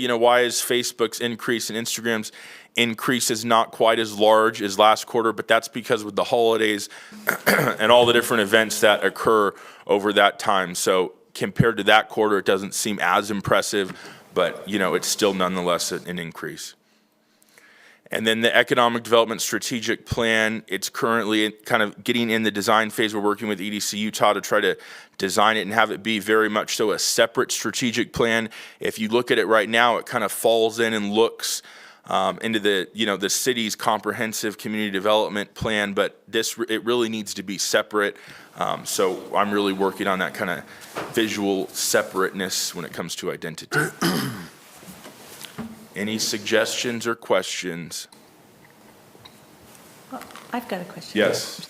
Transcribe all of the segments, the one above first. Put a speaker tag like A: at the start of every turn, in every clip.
A: you know, why is Facebook's increase and Instagram's increase is not quite as large as last quarter? But that's because with the holidays and all the different events that occur over that time. So compared to that quarter, it doesn't seem as impressive, but you know, it's still nonetheless an an increase. And then the economic development strategic plan, it's currently in- kind of getting in the design phase. We're working with EDC Utah to try to design it and have it be very much so a separate strategic plan. If you look at it right now, it kind of falls in and looks um, into the, you know, the city's comprehensive community development plan, but this, re- it really needs to be separate. Um, So I'm really working on that kind of visual separateness when it comes to identity. Any suggestions or questions?
B: I've got a question.
A: Yes.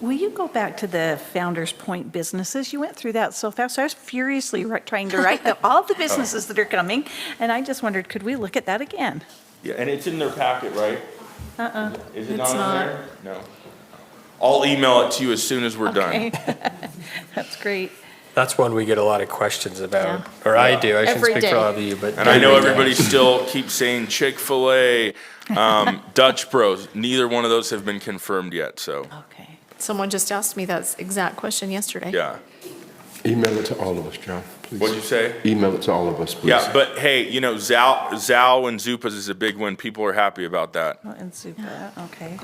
B: Will you go back to the Founder's Point businesses? You went through that so fast. I was furiously ri- trying to write the- all
C: Oh.
B: the businesses that are coming, and I just wondered, could we look at that again?
A: Yeah, and it's in their packet, right? Uh-uh. Is it
B: It's
A: not in
B: not.
A: there? No. I'll email it to you as soon as we're done.
B: Okay. That's great.
C: That's one we get a lot of questions about,
B: Yeah.
C: or I do, I shouldn't
D: Every
C: speak for
D: day.
C: all of you, but.
A: And I know
C: every day.
A: everybody still keeps saying Chick-fil-A, um, Dutch Bros. Neither one of those have been confirmed yet, so,
B: Okay.
D: Someone just asked me that exact question yesterday.
A: yeah.
E: Email it to all of us, John, please.
A: What'd you say?
E: Email it to all of us, please.
A: Yeah, but hey, you know, Zao, Zao and Zupas is a big one. People are happy about that.
B: Well, And Zupa, okay.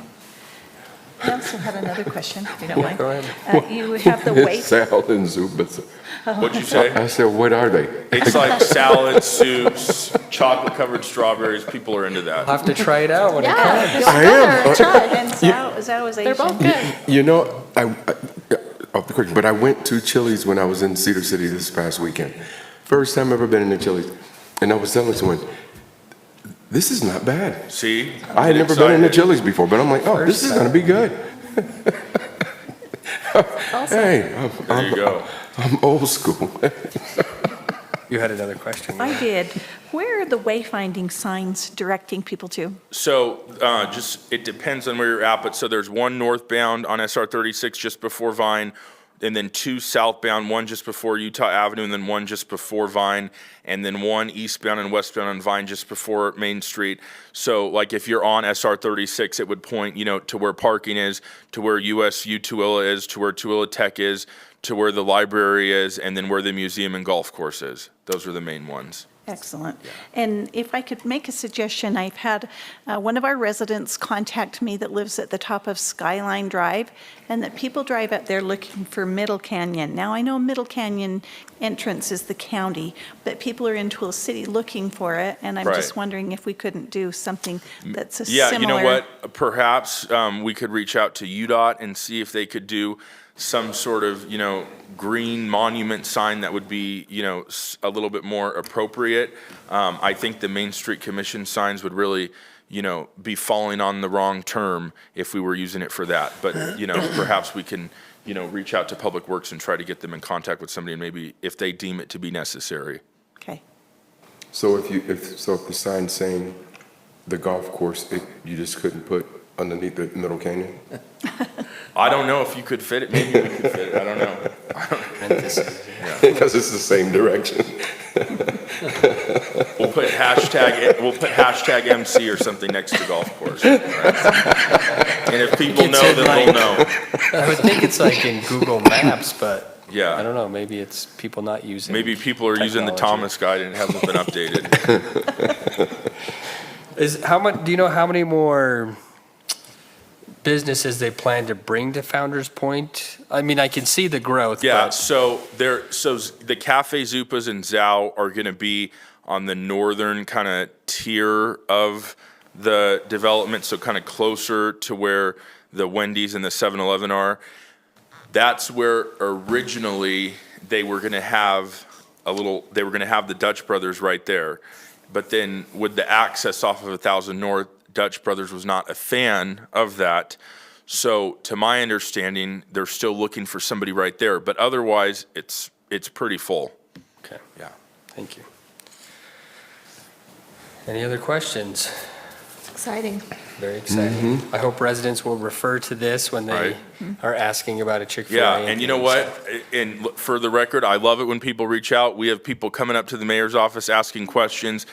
B: I also had another question, if you don't mind.
C: Go ahead.
B: Uh, You have the waste,
E: Sal and Zubas.
B: Oh.
A: What'd you say?
E: I said, what are they?
A: It's like salad soups, chocolate-covered strawberries. People are into that.
C: I'll have to try it out when it comes.
D: Yeah, go
E: I am.
D: out there and try.
B: and Zao Zao is
D: They're
B: Asian.
D: both good.
E: You know, I, I- off the quick, but I went to Chili's when I was in Cedar City this past weekend. First time I've ever been in a Chili's. And I was telling someone, this is not bad.
A: See?
E: I had never been in a
A: Excited.
E: Chili's before, but I'm like, oh, this
C: First
E: is
C: time.
E: gonna be good. Hey, I'm-
A: There you go.
E: I'm old school.
C: You had another question.
B: I did. Where are the wayfinding signs directing people to?
A: So uh, just, it depends on where you're at, but so there's one northbound on SR 36 just before Vine, and then two southbound, one just before Utah Avenue, and then one just before Vine, and then one eastbound and westbound on Vine just before Main Street. So like if you're on SR 36, it would point, you know, to where parking is, to where USU Tooele is, to where Tooele Tech is, to where the library is, and then where the museum and golf course is. Those are the main ones.
B: Excellent. And if I could make a suggestion, I've had uh, one of our residents contact me that lives at the top of Skyline Drive, and that people drive up there looking for Middle Canyon. Now, I know Middle Canyon entrance is the county, but people are in Tooele City looking for it, and I'm
A: Right.
B: just wondering if we couldn't do something that's a
A: Yeah,
B: similar.
A: you know what? Perhaps um, we could reach out to UDOT and see if they could do some sort of, you know, green monument sign that would be, you know, s- a little bit more appropriate. Um, I think the Main Street Commission signs would really, you know, be falling on the wrong term if we were using it for that. But, you know, perhaps we can, you know, reach out to Public Works and try to get them in contact with somebody and maybe if they deem it to be necessary.
B: Okay.
E: So if you, if, so if the sign saying the golf course, it, you just couldn't put underneath the middle canyon?
A: I don't know if you could fit it. Maybe we could fit it. I don't know.
E: Because it's the same direction.
A: We'll put hashtag, we'll put hashtag MC or something next to golf course. And if people know, then they'll know.
C: I would think it's like in Google Maps, but I
A: Yeah,
C: don't know, maybe it's people not using.
A: maybe people are using the
C: Technology.
A: Thomas guide and it hasn't been updated.
C: Is, how much, do you know how many more businesses they plan to bring to Founder's Point? I mean, I can see the growth,
A: Yeah,
C: but
A: so there, so z- the Cafe Zupas and Zao are gonna be on the northern kind of tier of the development, so kind of closer to where the Wendy's and the 7-Eleven are. that's where originally they were going to have a little they were going to have the dutch brothers right there but then with the access off of a thousand north dutch brothers was not a fan of that so to my understanding they're still looking for somebody right there but otherwise it's it's pretty full
C: Okay.
A: yeah
C: Thank you. Any other questions?
D: It's exciting.
C: Very exciting. I hope residents will refer to this when they
A: Mm-hmm. Right.
C: are asking about a Chick-fil-A.
A: Yeah, and you know
C: things.
A: what? And look, for the record, I love it when people reach out. We have people coming up to the mayor's office asking questions.